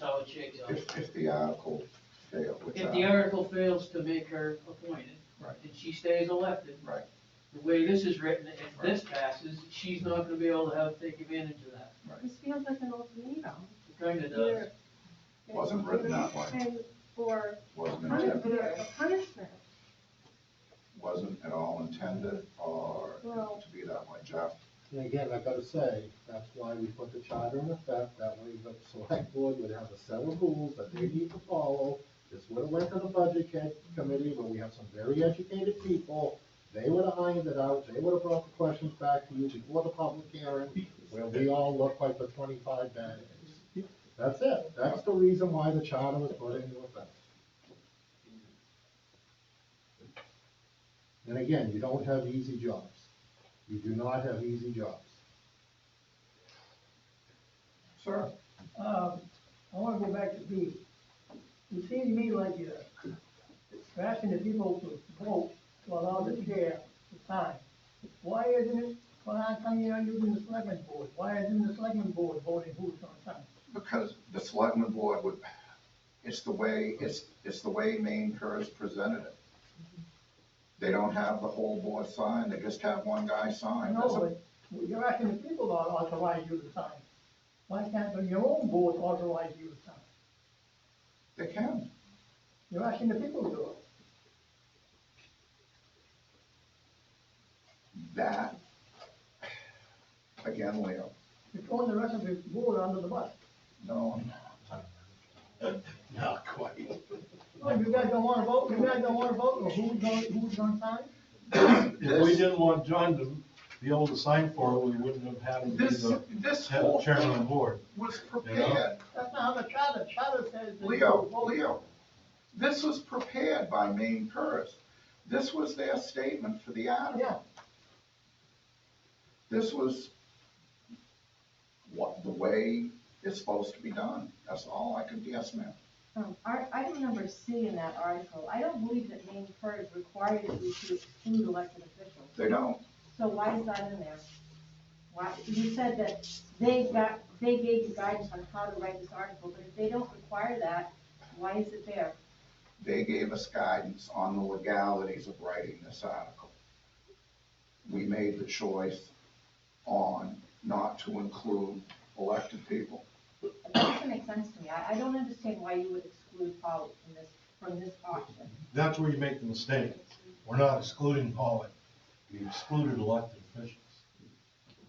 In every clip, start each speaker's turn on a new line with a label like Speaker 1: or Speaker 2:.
Speaker 1: how it shakes out.
Speaker 2: If, if the article failed
Speaker 1: If the
Speaker 2: without,
Speaker 1: article fails to make her appointed,
Speaker 2: Right.
Speaker 1: and she stays elected,
Speaker 2: right,
Speaker 1: the way this is written, if this passes, she's not gonna be able to have, take advantage of that.
Speaker 3: This feels like an old meeting.
Speaker 1: It kinda does.
Speaker 3: Either-
Speaker 2: Wasn't written that way.
Speaker 3: And- Or
Speaker 2: wasn't
Speaker 3: punishment,
Speaker 2: intended,
Speaker 3: or punishment.
Speaker 2: wasn't at all intended or
Speaker 3: Well-
Speaker 2: to be that way, Jeff.
Speaker 4: And again, I gotta say, that's why we put the charter in effect, that way the select board would have a set of rules that they need to follow. This would have went to the budget ca- committee, but we have some very educated people, they would have ironed it out, they would have brought the questions back to you before the public hearing, where we all look like the twenty-five bad eggs. That's it, that's the reason why the charter was put into effect. And again, you don't have easy jobs. You do not have easy jobs.
Speaker 2: Sir,
Speaker 5: Um, I wanna go back to B. It seems to me like you're you're asking the people to vote to allow the chair to sign. Why isn't it, why how come you're not using the selectmen board? Why isn't the selectmen board voting who's gonna sign?
Speaker 2: because the selectmen board would, it's the way, it's, it's the way Maine Pers presented it. They don't have the whole board signed, they just have one guy
Speaker 5: I
Speaker 2: sign. That's a-
Speaker 5: know, but you're asking the people to authorize you to sign. Why can't the- your own board authorize you to sign?
Speaker 2: They can,
Speaker 5: You're asking the people to do it.
Speaker 2: that, again, Leo,
Speaker 5: You're throwing the rest of the board under the bus.
Speaker 2: no,
Speaker 4: Not quite.
Speaker 5: Well, Oh, you guys don't wanna vote, you guys don't wanna vote, or who's gonna, who's gonna sign?
Speaker 6: If we didn't want John to be able to sign for it, we wouldn't have had him be
Speaker 2: This,
Speaker 6: the
Speaker 2: this
Speaker 6: head
Speaker 2: whole
Speaker 6: chairman of the
Speaker 2: thing
Speaker 6: board.
Speaker 2: was prepared,
Speaker 5: That's not how the charter, charter says. that you
Speaker 2: Leo,
Speaker 5: vote.
Speaker 2: Leo, this was prepared by Maine Pers. This was their statement for the
Speaker 5: Yeah,
Speaker 2: article. This was what, the way it's supposed to be done, that's all I could guess, ma'am.
Speaker 3: Um, our, item number C in that article, I don't believe that Maine Pers requires you to exclude elected officials.
Speaker 2: They don't,
Speaker 3: So why is that in there? Why, you said that they got, they gave you guidance on how to write this article, but if they don't require that, why is it there?
Speaker 2: they gave us guidance on the legalities of writing this article. We made the choice on not to include elected people.
Speaker 3: It doesn't make sense to me. I, I don't understand why you would exclude Polly from this, from this auction.
Speaker 6: That's where you make the mistake. We're not excluding Polly. We excluded elected officials.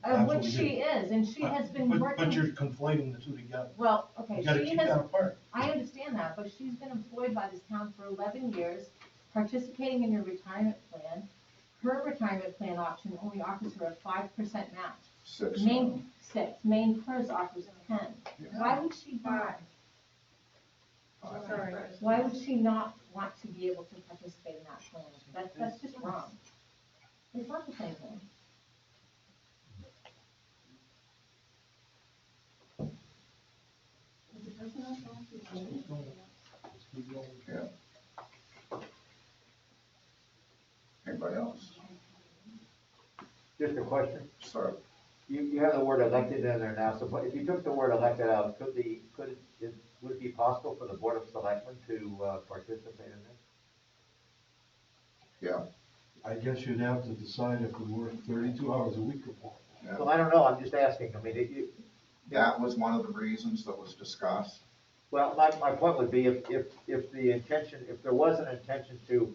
Speaker 3: Uh,
Speaker 6: That's what
Speaker 3: which
Speaker 6: we
Speaker 3: she is, and she has been
Speaker 6: But-
Speaker 3: working.
Speaker 6: But you're conflating the two together.
Speaker 3: Well,
Speaker 6: You
Speaker 3: okay,
Speaker 6: gotta
Speaker 3: she
Speaker 6: keep
Speaker 3: has
Speaker 6: that apart.
Speaker 3: I understand that, but she's been employed by this town for eleven years, participating in your retirement plan. Her retirement plan option only offers her a five percent match.
Speaker 2: Six.
Speaker 3: Main, six, main purse offers a ten. Why would she not,
Speaker 2: Five.
Speaker 3: sorry, why would she not want to be able to participate in that plan? That's, that's just wrong. It's not the same thing.
Speaker 2: Anybody else?
Speaker 7: Just a question,
Speaker 2: Sir,
Speaker 7: you, you have the word elected in there now, so if you took the word elected out, could the, could, it, would it be possible for the board of selectmen to, uh, participate in this?
Speaker 2: yeah,
Speaker 6: I guess you'd have to decide if we work thirty-two hours a week or more.
Speaker 7: Well, I don't know, I'm just asking, I mean, it, you,
Speaker 2: that was one of the reasons that was discussed.
Speaker 7: well, my, my point would be if, if, if the intention, if there was an intention to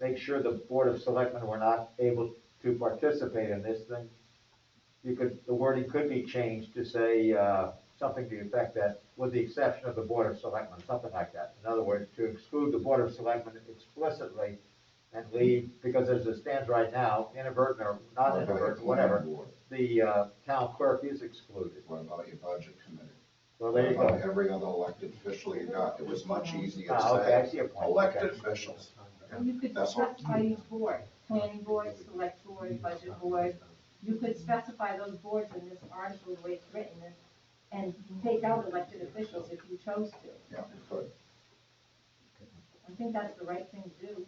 Speaker 7: make sure the board of selectmen were not able to participate in this, then you could, the wording could be changed to say, uh, something to the effect that, with the exception of the Board of Selectmen, something like that. In other words, to exclude the Board of Selectmen explicitly and leave, because as it stands right now, inadvertent or not inadvertent, whatever, the, uh, town clerk is excluded.
Speaker 2: What about your budget committee?
Speaker 7: Well, there you
Speaker 2: What about
Speaker 7: go.
Speaker 2: Every other elected official you got, it was much easier to
Speaker 7: Ah, okay, I
Speaker 2: say,
Speaker 7: see your point.
Speaker 2: elected
Speaker 7: Okay.
Speaker 2: officials.
Speaker 3: You could
Speaker 2: That's all.
Speaker 3: specify each board, planning board, select board, budget board. You could specify those boards in this article the way it's written and, and take out elected officials if you chose to.
Speaker 2: Yeah, you could.
Speaker 3: I think that's the right thing to do.